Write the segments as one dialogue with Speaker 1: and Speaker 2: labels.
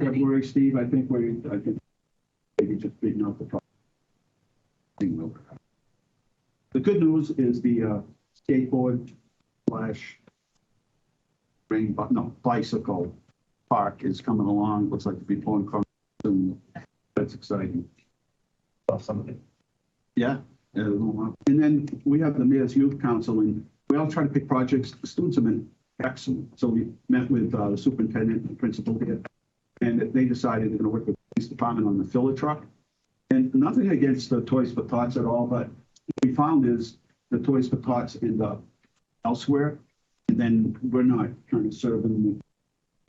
Speaker 1: February, Steve, I think we, I think maybe just beating up the pro- thing will. The good news is the uh, skateboard slash rain, bu- no, bicycle park is coming along. Looks like to be pulling cars and that's exciting.
Speaker 2: Off some of it.
Speaker 1: Yeah. yeah, there's a lot. And then we have the Mayor's Youth Council and we all try to pick projects. The Students have been excellent. So we met with uh, the superintendent and principal here. And they decided they're going to work with the police department on the filler truck. And nothing against the Toys for Tots at all, but what we found is the Toys for Tots end up elsewhere. And then we're not trying to serve in the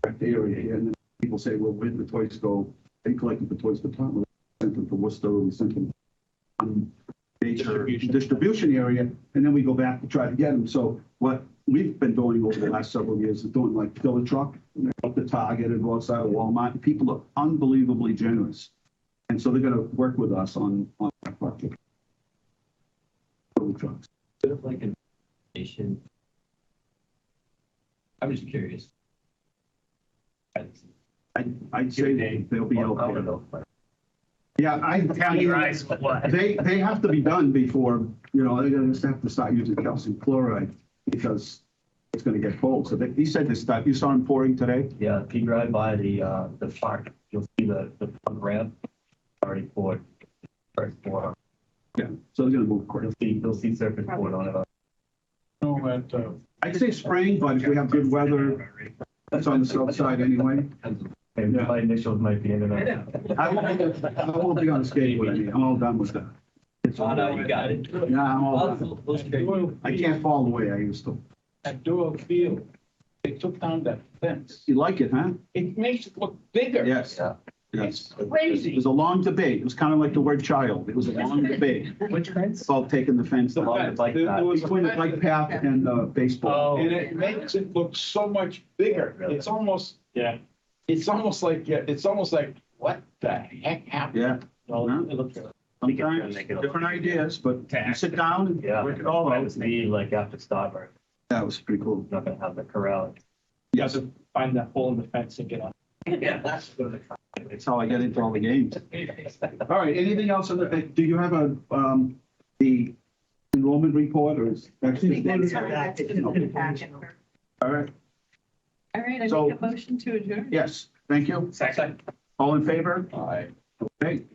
Speaker 1: correct area here. And then people say, well, where did the toys go? They collected the Toys for Tots, we sent them to Worcester, we sent them um, major
Speaker 2: Distribution.
Speaker 1: distribution area, and then we go back to try to get them. So what we've been doing over the last several years is doing like fill a truck, you know, up to Target and go outside of Walmart. People are unbelievably generous. And so they're gonna work with us on, on that project. Fill the trucks.
Speaker 2: Bit of like an nation. I'm just curious.
Speaker 1: I, I'd say they- they'll be out there. Yeah, I.
Speaker 3: Count your eyes with what?
Speaker 1: They, they have to be done before, you know, they're gonna just have to start using calcium chloride because it's gonna get cold. So they, he said this stuff, you saw him pouring today?
Speaker 2: Yeah, if you drive by the, uh, the park, you'll see the, the pump ramp already poured. First pour,
Speaker 1: Yeah. So they're gonna move quick.
Speaker 2: you'll see, you'll see surface poured on it.
Speaker 4: No, at, uh,
Speaker 1: I'd say spring, but if we have good weather, it's on the south side anyway.
Speaker 2: And
Speaker 1: Yeah.
Speaker 2: my initials might be in
Speaker 3: I
Speaker 2: it.
Speaker 3: know.
Speaker 1: I won't, I won't be on the skateboard, I mean, I'm all done with that. It's
Speaker 2: Oh,
Speaker 1: all
Speaker 2: no, you got it.
Speaker 1: Yeah, I'm all done.
Speaker 2: I'll- we'll
Speaker 4: at
Speaker 2: straighten
Speaker 4: Doyle
Speaker 1: I
Speaker 4: Field,
Speaker 1: can't fall the way I used to.
Speaker 4: at Doyle Field, they took down that fence.
Speaker 1: You like it, huh?
Speaker 4: It makes it look bigger.
Speaker 1: Yes,
Speaker 2: Yeah.
Speaker 1: yes. It
Speaker 4: Crazy.
Speaker 1: was a long debate. It was kind of like the word child. It was a long debate
Speaker 2: Which fence?
Speaker 1: about taking the fence
Speaker 2: The
Speaker 1: down.
Speaker 2: one, the bike path.
Speaker 4: It was-
Speaker 1: Between the bike path and the baseball.
Speaker 2: Oh.
Speaker 4: And it makes it look so much bigger. It's almost.
Speaker 2: Yeah.
Speaker 4: It's almost like, yeah, it's almost like, what the heck happened?
Speaker 1: Yeah,
Speaker 2: Well, it looks-
Speaker 1: sometimes different ideas, but you sit down and
Speaker 2: Yeah.
Speaker 1: work it all
Speaker 2: That
Speaker 1: out.
Speaker 2: was me, like after Starbucks,
Speaker 1: That was pretty cool.
Speaker 2: not gonna have the corral.
Speaker 1: Yes,
Speaker 5: find that hole in the fence and get on.
Speaker 2: Yeah, that's good.
Speaker 1: that's how I get into all the games. All right, anything else on the, uh, do you have a, um, the enrollment report or is? that's
Speaker 6: I think that's
Speaker 1: just-
Speaker 6: how that's in the packet.
Speaker 1: All right,
Speaker 6: All right, I make
Speaker 1: So-
Speaker 6: a motion to adjourn.
Speaker 1: yes, thank you.
Speaker 5: Second.
Speaker 1: All in favor?
Speaker 4: All right.
Speaker 1: Okay,